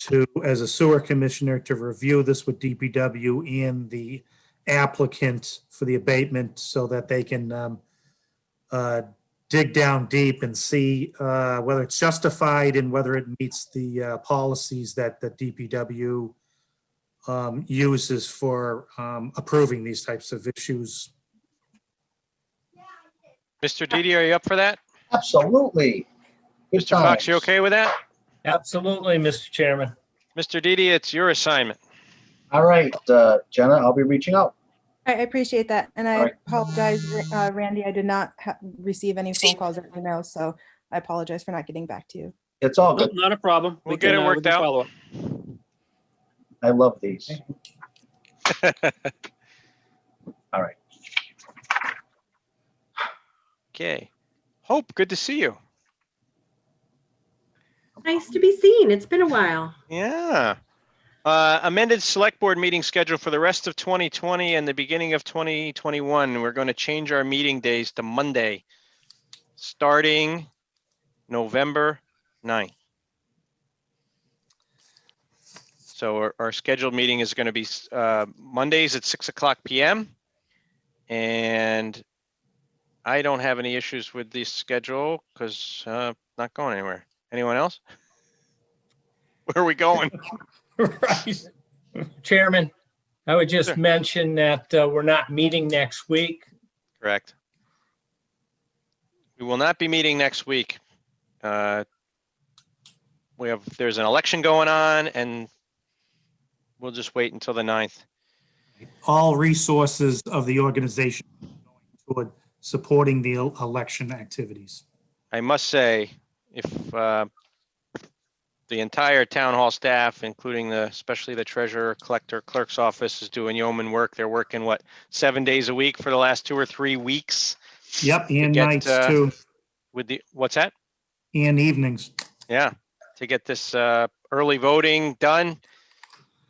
to, as a sewer commissioner, to review this with DPW and the applicant for the abatement so that they can um, uh, dig down deep and see uh, whether it's justified and whether it meets the uh, policies that the DPW um, uses for um, approving these types of issues. Mr. Didi, are you up for that? Absolutely. Good Mr. Fox, you times. okay with that? Absolutely, Mr. Chairman. Mr. Didi, it's your assignment. All right, uh, Jenna, I'll be reaching out. I I appreciate that, and All I right. apologize, uh, Randy, I did not ha- receive any phone calls or emails, so I apologize for not getting back to you. It's all No- good. Not a problem. We'll We get can, it uh, we worked can out. follow up. I love these. Okay. Hope, good to see you. Nice to be seen. It's been a while. Yeah. Uh, amended select board meeting schedule for the rest of 2020 and the beginning of 2021. We're going to change our meeting days to Monday, starting November 9th. So our, our scheduled meeting is going to be uh, Mondays at 6 o'clock PM. And I don't have any issues with this schedule because uh, not going anywhere. Anyone else? Where are we going? Right. Chairman, I would Sure. just mention that uh, we're not meeting next week. Correct. We will not be meeting next week. Uh, We have, there's an election going on and we'll just wait until the 9th. All resources of the organization toward supporting the el- election activities. I must say, if uh, the entire town hall staff, including the, especially the treasurer, collector, clerk's office is doing yeoman work. They're working, what, seven days a week for the last two or three weeks Yep, and get, nights uh, too, with the, what's that? and evenings. Yeah, to get this uh, early voting done.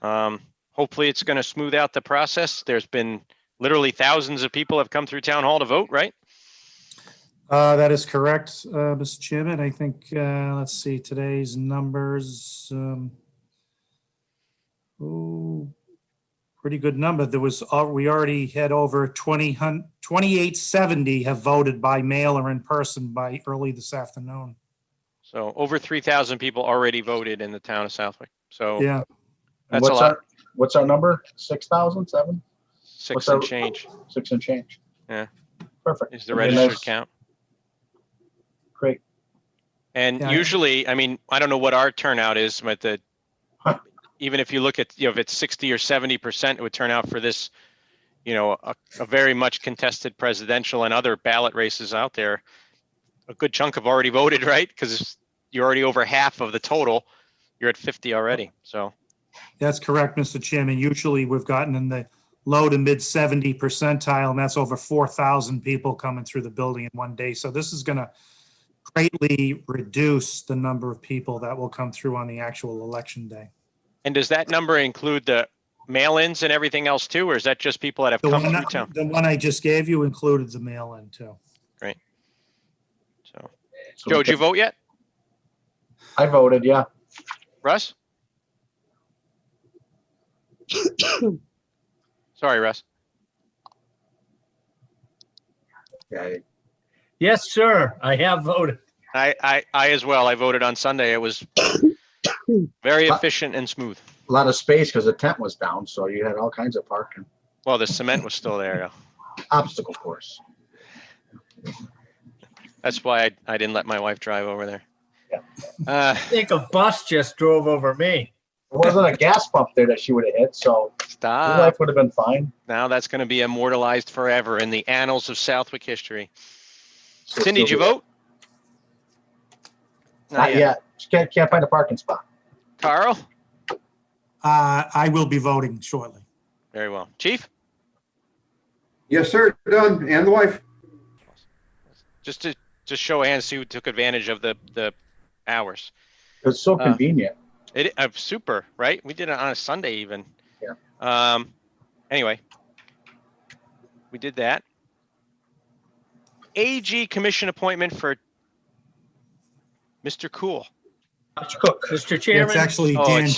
Um, Hopefully, it's going to smooth out the process. There's been literally thousands of people have come through town hall to vote, right? Uh, that is correct, uh, Mr. Chairman. I think, uh, let's see, today's numbers, um, ooh, pretty good number. There was, al- we already had over 20 hun- 2870 have voted by mail or in person by early this afternoon. So over 3,000 people already voted in the town of Southwick. So Yeah, And That's a what's lot. our, what's our number? Six thousand, seven, six what's our- and change six and change? Yeah. Perfect. is the Okay, registered nice. count. Great. And Yeah. usually, I mean, I don't know what our turnout is, but the, even if you look at, you know, if it's 60 or 70%, it would turn out for this, you know, a, a very much contested presidential and other ballot races out there. A good chunk have already voted, right? Because you're already over half of the total. You're at 50 already. So, that's correct, Mr. Chairman. Usually we've gotten in the low to mid 70 percentile, and that's over 4,000 people coming through the building in one day. So this is going to greatly reduce the number of people that will come through on the actual election day. and does that number include the mail-ins and everything else too? Or is that just people that have The come one, through I- town? the one I just gave you included the mail-in too. So, So we Joe, did you can- vote yet? I voted, yeah. Russ? Sorry, Russ. Yeah. Yes, sir, I have voted. I, I, I as well. I voted on Sunday. It was very efficient and smooth. A lot of space because the tent was down, so you had all kinds of parking, Well, the cement was still there. though. obstacle course. That's why I, I didn't let my wife drive over there. Uh, I think a bus just drove over me. There wasn't a gas pump there that she would have hit, so your stop. life would have been fine. Now that's going to be immortalized forever in the annals of Southwick history. So Cindy, did you still- vote? Not yet. She can't, can't find a parking spot. Carl? Uh, I will be voting shortly. Very well. Chief? Yes, sir, done, and the wife. Just to, just show of hands, see who took advantage of the, the hours. It's so Uh, convenient. It, uh, super, right? We did it on a Sunday even. Yeah. Um, anyway. We did that. AG commission appointment for Mr. Cool. Cook. Mr. Chairman? It's actually Oh, Dan it's